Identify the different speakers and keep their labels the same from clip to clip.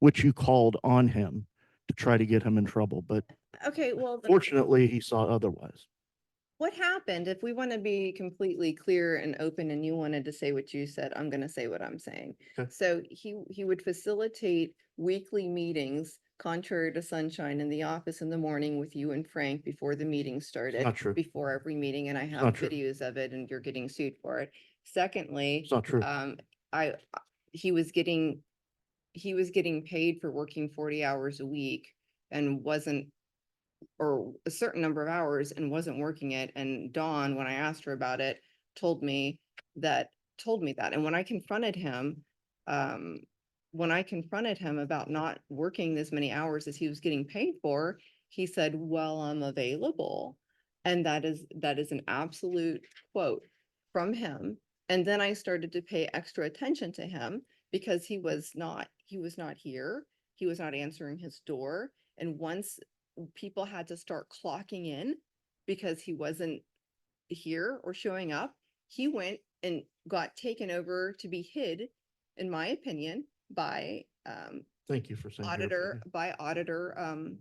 Speaker 1: which you called on him to try to get him in trouble, but
Speaker 2: Okay, well, then
Speaker 1: fortunately, he saw otherwise.
Speaker 2: what happened? If we want to be completely clear and open and you wanted to say what you said, I'm going to say what I'm saying.
Speaker 1: Okay.
Speaker 2: So he, he would facilitate weekly meetings contrary to sunshine in the office in the morning with you and Frank before the meeting started.
Speaker 1: not true.
Speaker 2: Before every meeting and I
Speaker 1: not
Speaker 2: have
Speaker 1: true.
Speaker 2: videos of it and you're getting sued for it. Secondly,
Speaker 1: It's not true.
Speaker 2: um, I, I- he was getting, he was getting paid for working forty hours a week and wasn't, or a certain number of hours and wasn't working it. And Dawn, when I asked her about it, told me that, told me that. And when I confronted him, um, when I confronted him about not working this many hours as he was getting paid for, he said, well, I'm available. And that is, that is an absolute quote from him. And then I started to pay extra attention to him because he was not, he was not here. He was not answering his door. And once people had to start clocking in because he wasn't here or showing up, he went and got taken over to be hid, in my opinion, by um
Speaker 1: Thank you for saying. your
Speaker 2: auditor,
Speaker 1: opinion.
Speaker 2: by auditor um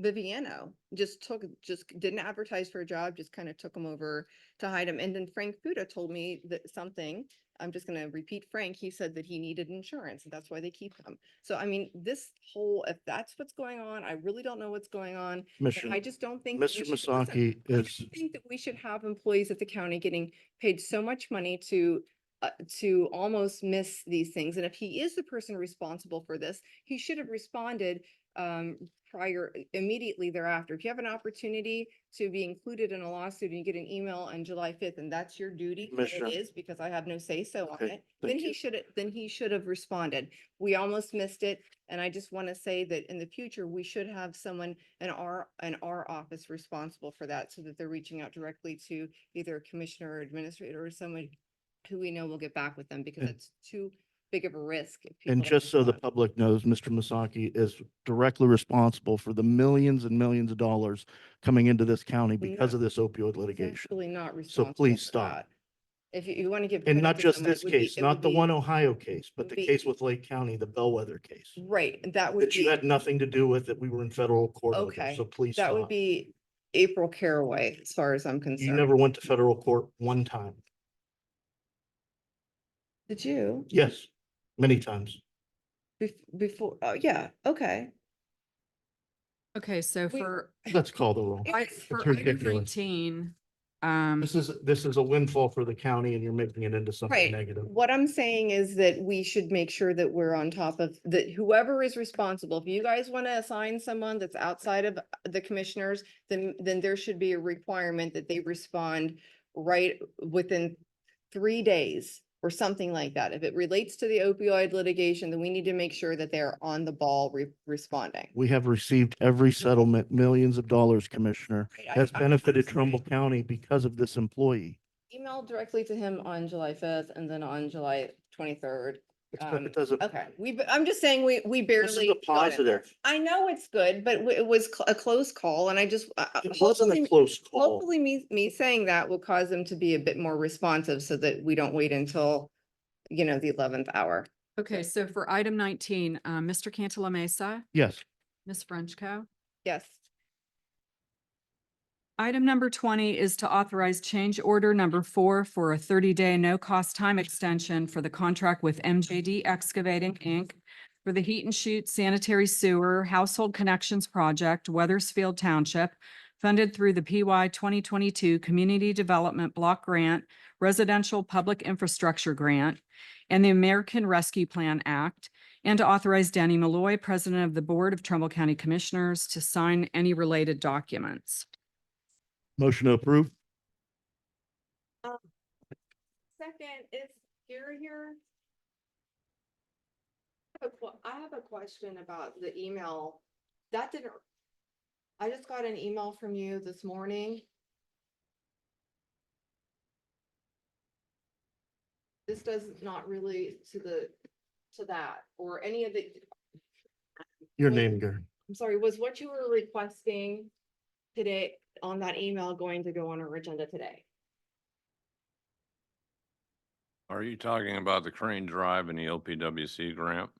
Speaker 2: Viviano. Just took, just didn't advertise for a job, just kind of took him over to hide him. And then Frank Fuda told me that something, I'm just gonna repeat Frank, he said that he needed insurance, and that's why they keep him. So I mean, this whole, if that's what's going on, I really don't know what's going on. and I
Speaker 1: Commissioner,
Speaker 2: just don't think. that
Speaker 1: Mr.
Speaker 2: we should- listen,
Speaker 1: Masaki
Speaker 2: I
Speaker 1: is,
Speaker 2: don't think that we should have employees at the county getting paid so much money to, uh, to almost miss these things. And if he is the person responsible for this, he should have responded, um, prior, immediately thereafter. If you have an opportunity to be included in a lawsuit and you get an email on July fifth, and that's your duty, and
Speaker 1: Commissioner.
Speaker 2: it is, because I have no say-so on
Speaker 1: Okay,
Speaker 2: it, then
Speaker 1: thank
Speaker 2: he
Speaker 1: you.
Speaker 2: should, then he should have responded. We almost missed it, and I just want to say that in the future, we should have someone in our, in our office responsible for that, so that they're reaching out directly to either a commissioner or administrator or someone who we know will get back with them, because
Speaker 1: And-
Speaker 2: it's too big of a risk. if people
Speaker 1: and
Speaker 2: don't
Speaker 1: just so the
Speaker 2: respond.
Speaker 1: public knows, Mr. Masaki is directly responsible for the millions and millions of dollars coming into this county
Speaker 2: Well,
Speaker 1: because
Speaker 2: no.
Speaker 1: of this opioid
Speaker 2: It's
Speaker 1: litigation.
Speaker 2: actually not responsible.
Speaker 1: please
Speaker 2: for
Speaker 1: stop.
Speaker 2: that. If you, you want to give.
Speaker 1: And
Speaker 2: credit
Speaker 1: not
Speaker 2: to
Speaker 1: just
Speaker 2: someone, it
Speaker 1: this
Speaker 2: would be-
Speaker 1: case,
Speaker 2: it
Speaker 1: not
Speaker 2: would
Speaker 1: the
Speaker 2: be-
Speaker 1: one Ohio case, but the
Speaker 2: be-
Speaker 1: case with Lake County, the Bellwether case.
Speaker 2: Right, that would
Speaker 1: That
Speaker 2: be.
Speaker 1: you had nothing to do with, that we were in federal court over,
Speaker 2: Okay,
Speaker 1: so please
Speaker 2: That would
Speaker 1: stop.
Speaker 2: be April Caraway, as far as I'm
Speaker 1: You
Speaker 2: concerned.
Speaker 1: never went to federal court one time.
Speaker 2: Did you?
Speaker 1: Yes, many times.
Speaker 2: Bef- Before, oh, yeah, okay.
Speaker 3: Okay, so
Speaker 2: We-
Speaker 3: for,
Speaker 1: Let's call the roll.
Speaker 3: I,
Speaker 2: It's
Speaker 3: for item
Speaker 1: ridiculous.
Speaker 3: nineteen, um,
Speaker 1: This is, this is a windfall for the county and you're making it into something
Speaker 2: Right.
Speaker 1: negative.
Speaker 2: What I'm saying is that we should make sure that we're on top of, that whoever is responsible, if you guys want to assign someone that's outside of the commissioners, then, then there should be a requirement that they respond right within three days or something like that. If it relates to the opioid litigation, then we need to make sure that they're on the ball re- responding.
Speaker 1: We have received every settlement, millions of dollars, Commissioner,
Speaker 2: Mm-hmm. Right, I-
Speaker 1: has
Speaker 2: I-
Speaker 1: benefited
Speaker 2: I'm
Speaker 1: Trumbull
Speaker 2: sorry.
Speaker 1: County because of this employee.
Speaker 2: Email directly to him on July fifth and then on July twenty-third.
Speaker 1: It's- but
Speaker 2: Um,
Speaker 1: It doesn't,
Speaker 2: Okay, we, b- I'm just saying, we, we barely.
Speaker 1: this is a
Speaker 2: got it.
Speaker 1: positive.
Speaker 2: I know it's good, but w- it was cl- a close call and I just. uh, uh,
Speaker 1: It wasn't a
Speaker 2: hopefully-
Speaker 1: close call.
Speaker 2: Hopefully me, me saying that will cause them to be a bit more responsive so that we don't wait until, you know, the eleventh hour.
Speaker 3: okay, so for item nineteen, uh, Mr. Cantala Mesa,
Speaker 1: Yes,
Speaker 3: Ms. Frenchco.
Speaker 2: Yes,
Speaker 3: Item number twenty is to authorize change order number four for a thirty-day no-cost time extension for the contract with MJD Excavating, Inc. for the Heat and Shoot Sanitary Sewer Household Connections Project, Weathersfield Township, funded through the PY twenty twenty-two Community Development Block Grant, Residential Public Infrastructure Grant, and the American Rescue Plan Act, and to authorize Danny Malloy, President of the Board of Trumbull County Commissioners, to sign any related documents.
Speaker 1: motion to approve.
Speaker 4: Second, is Gary here?
Speaker 2: a que- I have a question about the email. That didn't, I just got an email from you this morning. This does not relate to the, to that or any of the,
Speaker 1: Your
Speaker 2: Yeah.
Speaker 1: name, Gary.
Speaker 2: I'm sorry, was what you were requesting today on that email going to go on our agenda today?
Speaker 4: Are you talking about the Crane Drive and the LPWC grant?